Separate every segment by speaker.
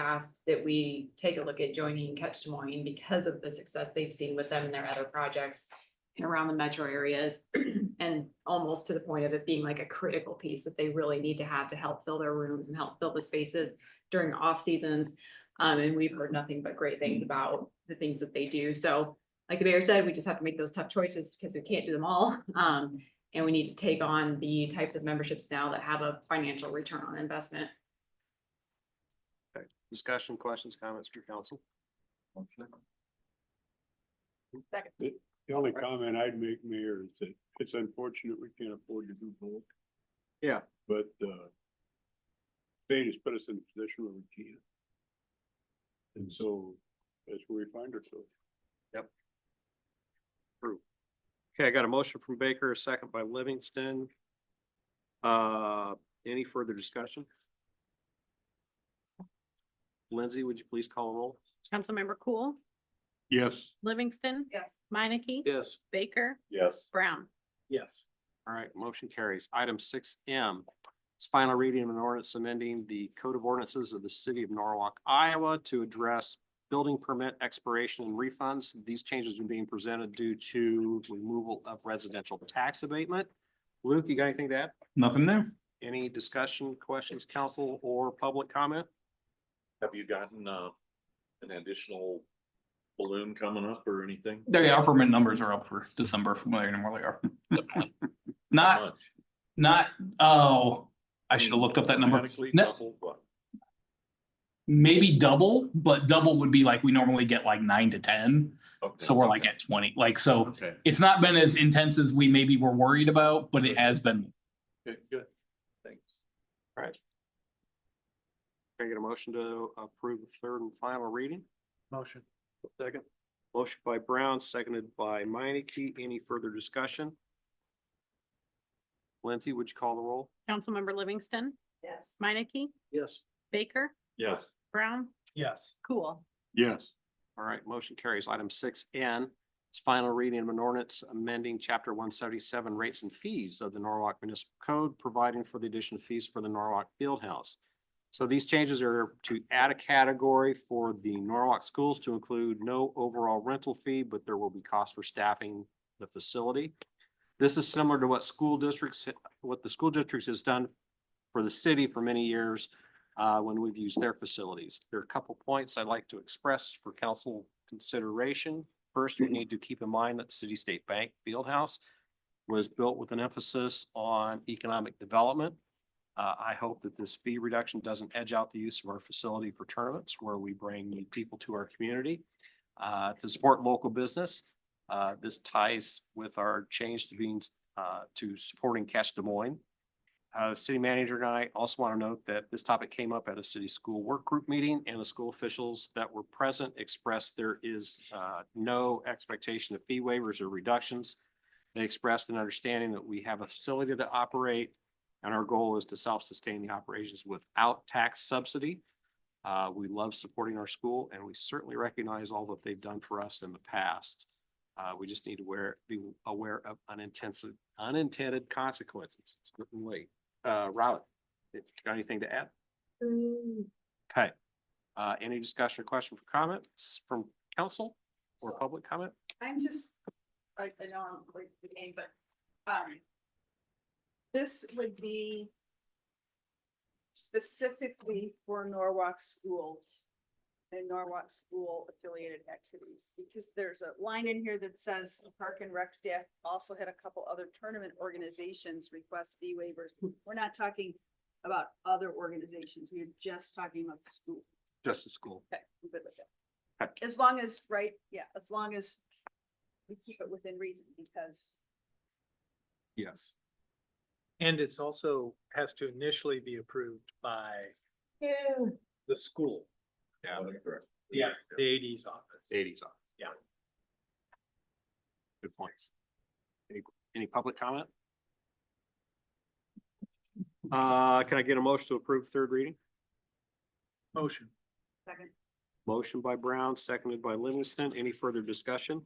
Speaker 1: asked that we take a look at joining Catch Des Moines because of the success they've seen with them and their other projects and around the metro areas and almost to the point of it being like a critical piece that they really need to have to help fill their rooms and help fill the spaces during off seasons. Um, and we've heard nothing but great things about the things that they do. So like the mayor said, we just have to make those tough choices because we can't do them all. Um, and we need to take on the types of memberships now that have a financial return on investment.
Speaker 2: Discussion, questions, comments for council?
Speaker 3: The only comment I'd make, Mayor, is that it's unfortunate we can't afford to do both.
Speaker 2: Yeah.
Speaker 3: But, uh, state has put us in a position where we can't. And so that's where we find ourselves.
Speaker 2: Okay, I got a motion from Baker, a second by Livingston. Uh, any further discussion? Lindsay, would you please call a roll?
Speaker 4: Councilmember Cool,
Speaker 3: Yes.
Speaker 4: Livingston.
Speaker 1: Yes.
Speaker 4: Minneke.
Speaker 2: Yes.
Speaker 4: Baker,
Speaker 3: Yes.
Speaker 4: Brown.
Speaker 2: Yes. All right, motion carries. Item six M. It's final reading of an ordinance amending the code of ordinances of the city of Norwalk, Iowa to address building permit expiration and refunds. These changes are being presented due to removal of residential tax abatement. Luke, you got anything to add?
Speaker 5: Nothing there.
Speaker 2: Any discussion, questions, council or public comment?
Speaker 6: Have you gotten, uh, an additional balloon coming up or anything?
Speaker 5: Their yeah, our permit numbers are up for December from where they normally are. Definitely.
Speaker 6: How
Speaker 5: Not,
Speaker 6: much?
Speaker 5: not, oh, I should have looked up that number.
Speaker 6: Automatically
Speaker 5: No,
Speaker 6: doubled, what?
Speaker 5: maybe double, but double would be like, we normally get like nine to ten.
Speaker 6: Okay,
Speaker 5: So we're like
Speaker 6: okay,
Speaker 5: at twenty, like, so
Speaker 6: Okay,
Speaker 5: it's not been as intense as we maybe were worried about, but it has been.
Speaker 6: good, good, thanks.
Speaker 2: Can I get a motion to approve the third and final reading?
Speaker 3: Motion. Second.
Speaker 2: Motion by Brown, seconded by Minneke. Any further discussion? Lindsay, would you call the roll?
Speaker 4: Councilmember Livingston. Yes. Minneke,
Speaker 3: Yes.
Speaker 4: Baker,
Speaker 6: Yes,
Speaker 4: Brown,
Speaker 5: Yes.
Speaker 4: Cool,
Speaker 3: Yes.
Speaker 2: All right, motion carries. Item six N is final reading of an ordinance amending chapter one seventy-seven rates and fees of the Norwalk Municipal Code, providing for the addition of fees for the Norwalk Fieldhouse. So these changes are to add a category for the Norwalk schools to include no overall rental fee, but there will be cost for staffing the facility. This is similar to what school districts, what the school districts has done for the city for many years uh, when we've used their facilities. There are a couple points I'd like to express for council consideration. First, we need to keep in mind that the City State Bank Fieldhouse was built with an emphasis on economic development. Uh, I hope that this fee reduction doesn't edge out the use of our facility for tournaments where we bring new people to our community uh, to support local business. Uh, this ties with our change to being, uh, to supporting Cash Des Moines. Uh, city manager and I also want to note that this topic came up at a city school work group meeting and the school officials that were present expressed there is, uh, no expectation of fee waivers or reductions. They expressed an understanding that we have a facility to operate and our goal is to self-sustain the operations without tax subsidy. Uh, we love supporting our school and we certainly recognize all that they've done for us in the past. Uh, we just need to wear, be aware of unintended, unintended consequences. It's getting late uh, Robin, if you got anything to add? Okay. Uh, any discussion or question for comments from council or
Speaker 7: So-
Speaker 2: public comment?
Speaker 7: I'm just, I, I know I'm late to the game, but, um. This would be. Specifically for Norwalk schools. And Norwalk school affiliated activities, because there's a line in here that says the park and rec staff also had a couple other tournament organizations request fee waivers. We're not talking about other organizations, we're just talking about the school.
Speaker 2: Just the school.
Speaker 7: Okay, I'm good with
Speaker 2: Okay.
Speaker 7: that. As long as, right, yeah, as long as we keep it within reason, because
Speaker 2: Yes.
Speaker 8: And it's also has to initially be approved by the school.
Speaker 2: Yeah.
Speaker 8: Yeah. The AD's office.
Speaker 2: Eighties off.
Speaker 8: Yeah.
Speaker 2: Good points. Any, any public comment? Uh, can I get a motion to approve third reading?
Speaker 8: Motion.
Speaker 7: second,
Speaker 2: Motion by Brown, seconded by Livingston. Any further discussion?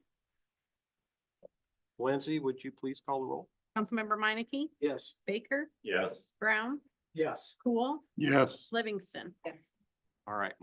Speaker 2: Lindsay, would you please call the roll?
Speaker 4: Councilmember Minneke,
Speaker 8: Yes.
Speaker 4: Baker,
Speaker 6: yes.
Speaker 4: Brown,
Speaker 8: Yes.
Speaker 4: Cool,
Speaker 3: Yes.
Speaker 4: Livingston.
Speaker 7: yes.
Speaker 2: All right,